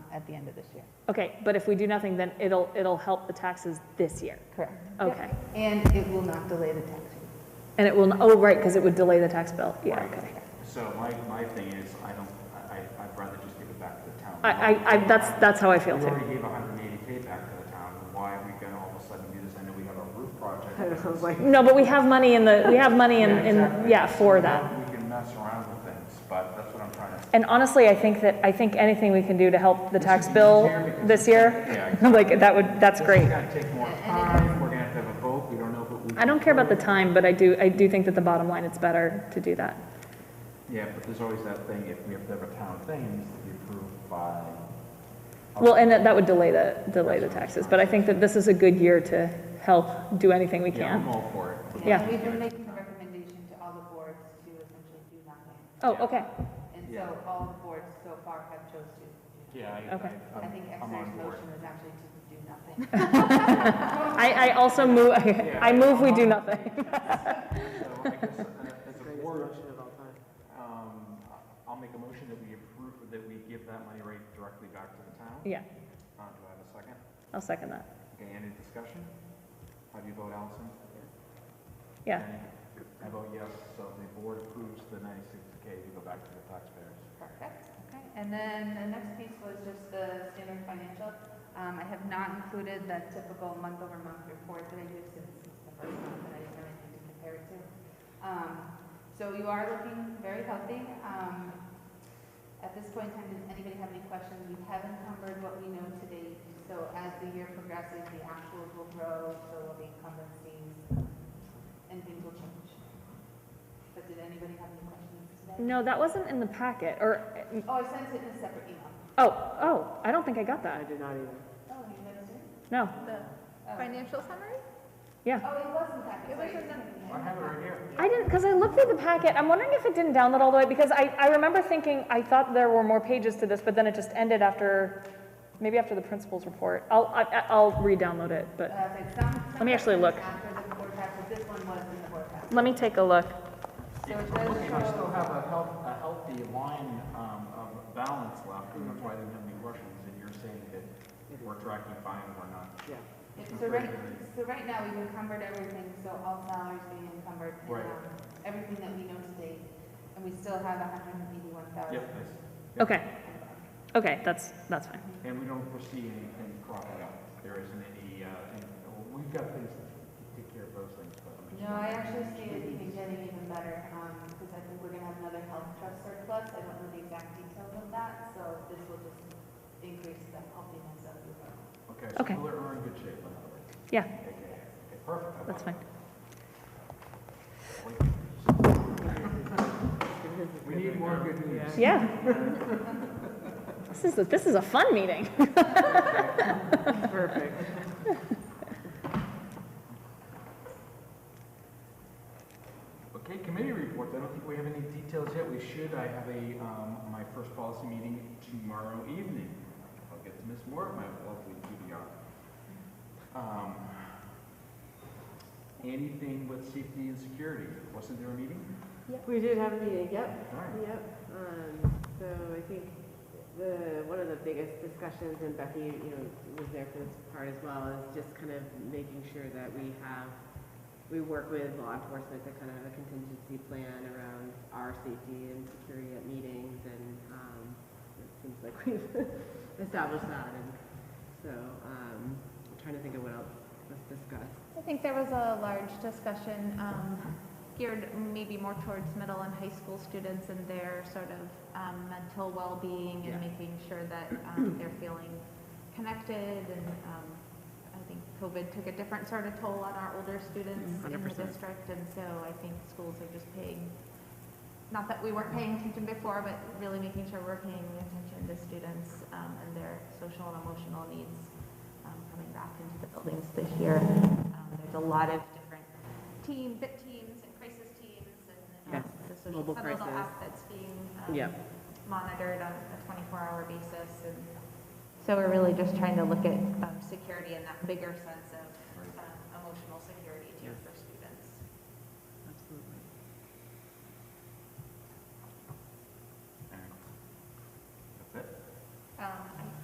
at the end of this year. Okay, but if we do nothing, then it'll, it'll help the taxes this year. Correct. Okay. And it will not delay the tax rate. And it will, oh, right, because it would delay the tax bill. Yeah, Right. okay. So my, my thing is, I don't, I, I- I'd rather just give it back to the town. I, I, I, that's, that's how I We feel too. already gave hundred and eighty K back to the town, why are we gonna all of a sudden do this? I know we have a roof project. No, but we have money in the, we have money in, Yeah, in, exactly. yeah, for We that. can- We can mess around with things, but that's what I'm trying to. And honestly, I think that, I think anything we can do to help the This tax would be bill easier because this it's- yeah, year, exactly. like, that would, that's This great. is gonna take more time, we're gonna have to have a vote, we don't know if it. I don't care about the time, but I do, I do think that the bottom line, it's better to do that. Yeah, but there's always that thing, if we have to have a town thing, it needs to be approved by. Well, and that, that would delay the, delay the taxes, but I think that this is a good year to help do anything we Yeah, I'm can. all for it. Yeah. We've been making the recommendation to all the boards to essentially do nothing. Oh, okay, And Yeah. so all the boards so far have chose to. do Yeah. I- Okay. nothing. I I- I'm- think I'm on Exner's board. motion was actually to do nothing. I, I also move, I move we do nothing. So I guess, uh, as a board, um, I'll make a motion that we approve, that we give that money right directly back to the town. Yeah, Uh, do I have a second? I'll second that. Okay, any discussion? How do you vote, Allison? Yeah, Any? I vote yes, so the board approves the ninety-six K to go back to the taxpayers. Perfect, okay. And then the next piece was just the standard financial. Um, I have not included that typical month-over-month report that I do since it's the first month that I didn't have anything to compare it to. Um, so you are looking very healthy. Um, at this point in time, does anybody have any questions? We have encumbered what we know to date. So as the year progresses, the actuals will grow, so will the incumbencies, um, and things will change. But did anybody have any questions today? no, that wasn't in the packet, or, Oh, I sent it in a separate email. oh, oh, I don't think I got I that. did not either. Oh, you guys did? No, The Financial summary? yeah. Oh, it wasn't that. It was I have it right here. I didn't, because I looked through the packet, I'm wondering if it didn't download all the way, because I, I remember thinking, I thought there were more pages to this, but then it just ended after, maybe after the principal's report. I'll, I, I'll re-download it, but Let Let me actually look. After the board packet, this one was in the board packet. let me take a look. So it Looking, I does still show, have a health, a healthy line, um, of balance left, and that's why I didn't have any questions, and you're saying that we're tracking fine, we're not. Yeah. it- so right, so right now, we've encumbered everything, so all salaries being encumbered. and, Right. um, Everything that we know today, and we still have a hundred and eighty-one thousand. Yep, yes. Yep. Uh, Okay, okay, that's, that's fine. And we don't foresee anything cropping up. There isn't any, uh, any- we've got things to take care of those things, but I'm just. No, I actually see it even getting even better, um, because I think we're gonna have another health trust surplus, I don't know the exact details of that, so this will just increase the healthiness of the road. Okay, Okay. so we're we're in good shape on that. one. Yeah, Okay, okay, perfect. I that's like fine. it. We need more good news. Yeah. This is, a- this is a fun meeting. Perfect. Okay, committee reports, I don't think we have any details yet, we should, I have a, um, my first policy meeting tomorrow evening. I'll get to Ms. Moore, my lovely QBR. Um, Anything with safety and security, wasn't there a meeting? We did have a meeting, yep, All right. yep. Um, So I think the, one of the biggest discussions, and Becky, you know, was there for this part as well, is just kind of making sure that we have, we work with law enforcement to kind of have a contingency plan around our safety and security at meetings, and um, it seems like we've established that, and so um, I'm trying to think of what else was discussed. I think there was a large discussion um, geared maybe more towards middle and high school students and their sort of um, mental well-being and Yeah. making sure that um, they're feeling connected and um, I think COVID took a different sort of toll on our older students in the 100%. district and so I think schools are just paying, not that we weren't paying attention before, but really making sure we're paying attention to students um, and their social and emotional needs um, coming back into the buildings this year. Um, There's a lot of different team, bit teams and crisis teams and um, the social Mobile sentinel crisis. app that's being um, Yep. monitored on a 24-hour basis. And so we're really just trying to look at um, security in that bigger sense of um, emotional security too for Um,